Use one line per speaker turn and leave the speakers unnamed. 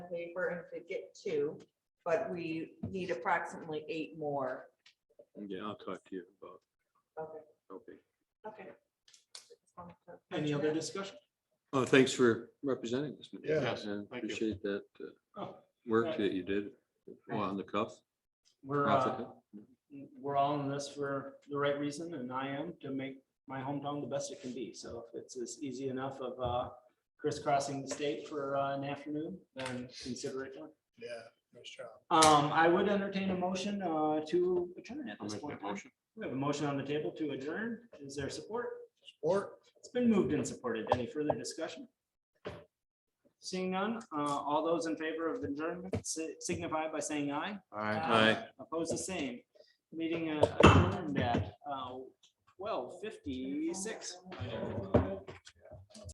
paper and could get two, but we need approximately eight more.
Yeah, I'll talk to you about,
Okay,
okay.
okay.
Any other discussion?
Oh, thanks for representing us. Mr.
Yeah,
Cass. I
thank you.
Appreciate that uh,
Oh,
work
Right.
that you did well, on the cuff.
We're, uh,
Profit.
we're all in this for the right reason and I am to make my hometown the best it can be. So if it's as easy enough of uh, crisscrossing the state for uh, an afternoon, then consider it done.
Yeah, nice job.
Um, I would entertain a motion uh, to adjourn at
I'll
this
make
point.
that
in time. We have a motion on the table to adjourn. Is there support?
Or
It's been moved and supported. Any further discussion? Seeing none, uh, all those in favor of adjournment si- signify by saying aye.
Aye.
Opposed, Uh, the same. Meeting uh, adjourned at twelve fifty-six.